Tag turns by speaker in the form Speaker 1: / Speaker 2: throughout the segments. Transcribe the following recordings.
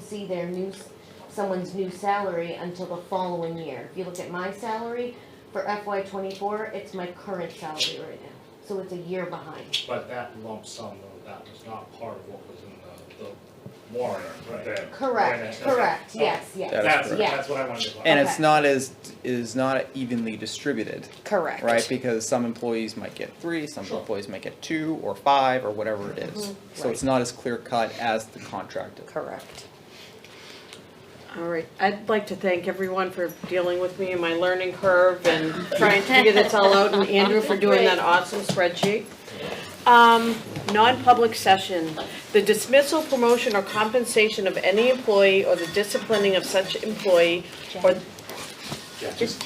Speaker 1: see their new, s- someone's new salary until the following year. If you look at my salary for FY twenty-four, it's my current salary right now, so it's a year behind.
Speaker 2: But that lump sum, though, that was not part of what was in the, the warrant then.
Speaker 1: Correct,
Speaker 2: Okay.
Speaker 1: correct, yes, yes,
Speaker 3: That is
Speaker 2: That's,
Speaker 1: correct.
Speaker 2: that's what I wanted to clarify.
Speaker 3: And it's
Speaker 1: Okay.
Speaker 3: not as, is not evenly distributed,
Speaker 4: Correct.
Speaker 3: right? Because some employees might get three, some
Speaker 2: Sure.
Speaker 3: employees might get two or five or whatever it is. So it's not as clear cut as the contracted.
Speaker 4: Mm-hmm. Correct.
Speaker 5: All right, I'd like to thank everyone for dealing with me and my learning curve and trying to figure this all out, and Andrew for doing that awesome spreadsheet. Um, non-public session, the dismissal, promotion, or compensation of any employee or the disciplining of such employee or.
Speaker 4: Just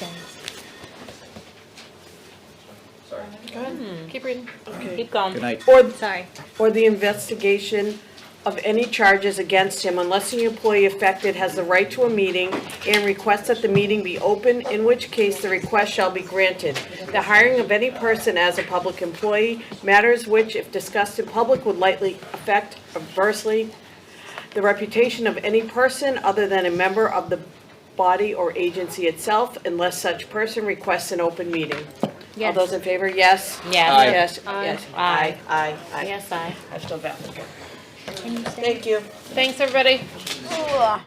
Speaker 2: Sorry.
Speaker 5: Go ahead, keep reading. Okay.
Speaker 6: Keep going.
Speaker 3: Good night.
Speaker 5: Or,
Speaker 6: Sorry.
Speaker 5: or the investigation of any charges against him unless the employee affected has the right to a meeting and requests that the meeting be open, in which case the request shall be granted. The hiring of any person as a public employee, matters which, if discussed in public, would likely affect adversely the reputation of any person other than a member of the body or agency itself unless such person requests an open meeting. All
Speaker 6: Yes.
Speaker 5: those in favor, yes?
Speaker 6: Yes.
Speaker 3: Aye.
Speaker 5: Yes,
Speaker 6: Aye.
Speaker 5: yes, aye,
Speaker 6: Aye.
Speaker 5: aye, aye.
Speaker 6: Yes, I.
Speaker 5: I still valid. Thank you.
Speaker 6: Thanks, everybody.